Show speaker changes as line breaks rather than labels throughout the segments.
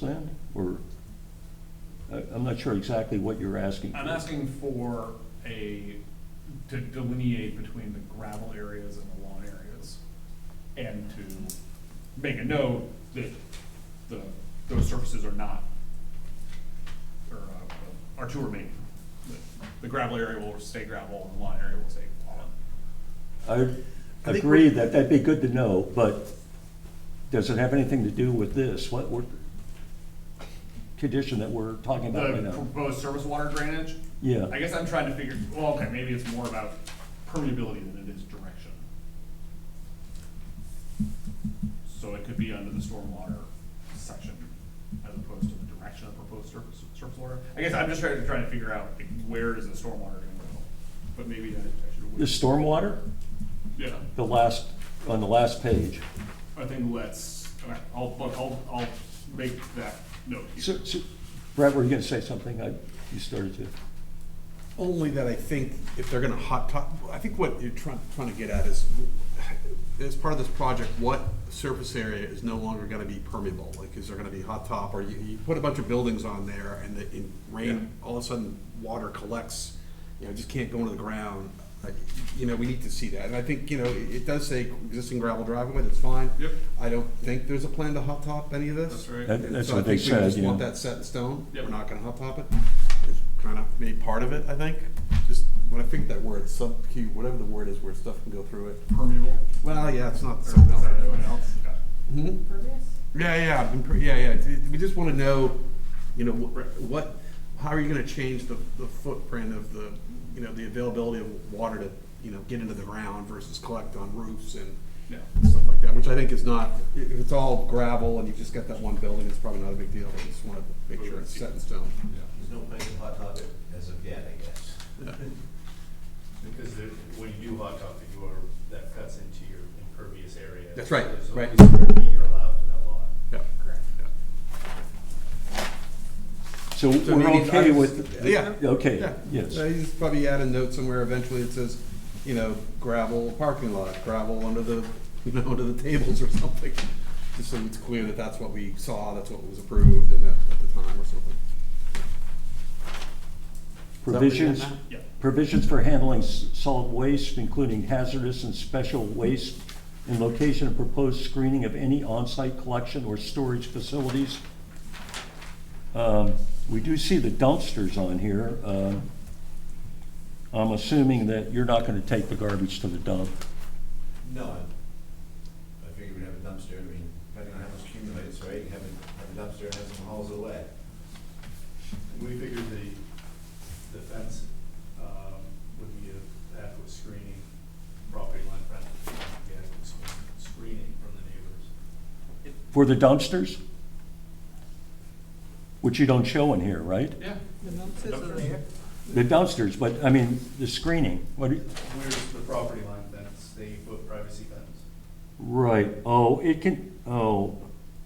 then, or, I- I'm not sure exactly what you're asking.
I'm
for.
asking for a, to delineate between the gravel areas and the lawn areas. And to make a note that the, those surfaces are not, or, uh, are to remain. The- The gravel area will stay gravel and the lawn area will stay lawn.
I
I think
agree that that'd be good to know, but does it have anything to do with this? What, what condition that we're talking about right
The
now?
proposed surface water drainage?
Yeah.
I guess I'm trying to figure, well, okay, maybe it's more about permeability than it is direction. So it could be under the stormwater section as opposed to the direction of proposed surface, surface water. I guess I'm just trying to, trying to figure out like, where is the stormwater gonna go? But maybe that, I should.
The stormwater,
Yeah,
the last, on the last page.
I think let's, okay, I'll, I'll, I'll make that note here.
So, so, Brett, were you gonna say something? I, you started to.
Only that I think if they're gonna hot top, I think what you're trying, trying to get at is, as part of this project, what surface area is no longer gonna be permeable? Like, is there gonna be hot top, or you, you put a bunch of buildings on there and the, in rain, all of a sudden, water collects, you know, just can't go into the ground. Like, You know, we need to see that, and I think, you know, it, it does say existing gravel driveway, that's fine.
Yep.
I don't think there's a plan to hot top any of this.
That's right.
That-
And
That's
so I
what they
think we
said,
just
you
want
know.
that set in stone,
Yep.
we're not gonna hot top it, it's kind of made part of it, I think. Just, when I think that word, sub Q, whatever the word is where stuff can go through it.
Permeable?
Well, yeah, it's not
Or is
something else.
that anyone else? Okay.
Hmm?
Impervious?
Yeah, yeah, I've been pre- yeah, yeah, It- we just wanna know, you know, wh- what, how are you gonna change the, the footprint of the, you know, the availability of water to, you know, get into the ground versus collect on roofs and
Yeah.
stuff like that, which I think is not, i- if it's all gravel and you've just got that one building, it's probably not a big deal, I just wanna make sure it's set in stone.
There's no plan to hot top it as of yet, I guess.
Because there- when you do hot top, you are, that cuts into your impervious area.
That's right,
There's only
right.
square feet You're allowed for that lot.
Yeah.
Correct.
So we're
So maybe
okay
I-
with?
Yeah.
Okay,
Yeah.
yes.
Uh, He's probably add a note somewhere eventually that says, you know, gravel parking lot, gravel under the, you know, under the tables or something. Just so it's clear that that's what we saw, that's what was approved and that, at the time or something. Is that what you had,
Provisions,
Matt?
Yeah.
provisions for handling s- solid waste, including hazardous and special waste, and location of proposed screening of any on-site collection or storage facilities. Um, We do see the dumpsters on here. Um, I'm assuming that you're not gonna take the garbage to the dump.
No, I- I figured we'd have a dumpster, I mean, depending on how much accumulates, right, have a, have a dumpster and have some hauls away.
We figured the, the fence, um, would be a adequate screening, property line fence, would be adequate screen- screening from the neighbors.
For the dumpsters? Which you don't show in here, right?
Yeah.
The dumpsters
are Dumpsters.
there.
The dumpsters, but, I mean, the screening, what, do you-
Where's the property line fence, the eight foot privacy fence?
right, oh, it can, oh,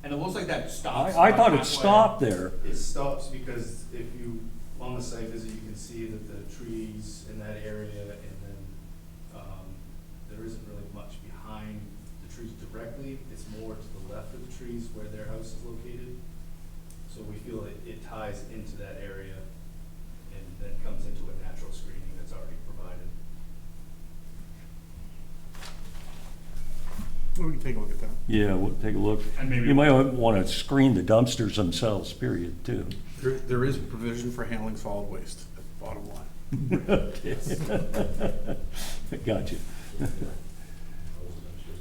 And it looks like that stops.
I, I
about
thought
halfway.
it stopped there.
It stops because if you, on the site visit, you can see that the trees in that area and then, um, there isn't really much behind the trees directly. It's more to the left of the trees where their house is located. So we feel it, it ties into that area and then comes into a natural screening that's already provided.
Well, we can take a look at that.
Yeah, we'll take a look.
And maybe-
You might want to screen the dumpsters themselves, period, too.
There, there is provision for handling solid waste, that's the bottom line.
Okay. Gotcha.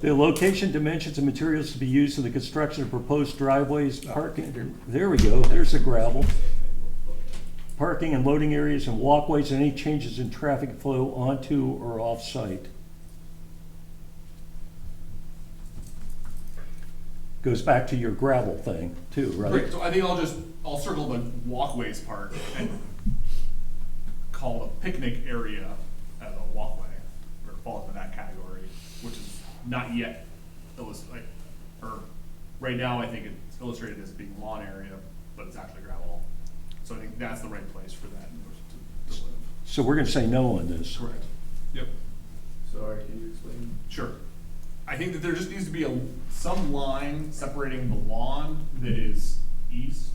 The location, dimensions, and materials to be used in the construction of proposed driveways, parking, there we go, there's the gravel. Parking and loading areas and walkways, and any changes in traffic flow onto or off-site. Goes back to your gravel thing, too, right?
Great, so I think I'll just, I'll circle the walkways part and call a picnic area as a walkway, or falls in that category, which is not yet illus, like, or, right now, I think it's illustrated as being lawn area, but it's actually gravel. So I think that's the right place for that to, to live.
So we're gonna say no on this.
Correct. Yep.
Sorry, can you explain?
Sure. I think that there just needs to be a, some line separating the lawn that is east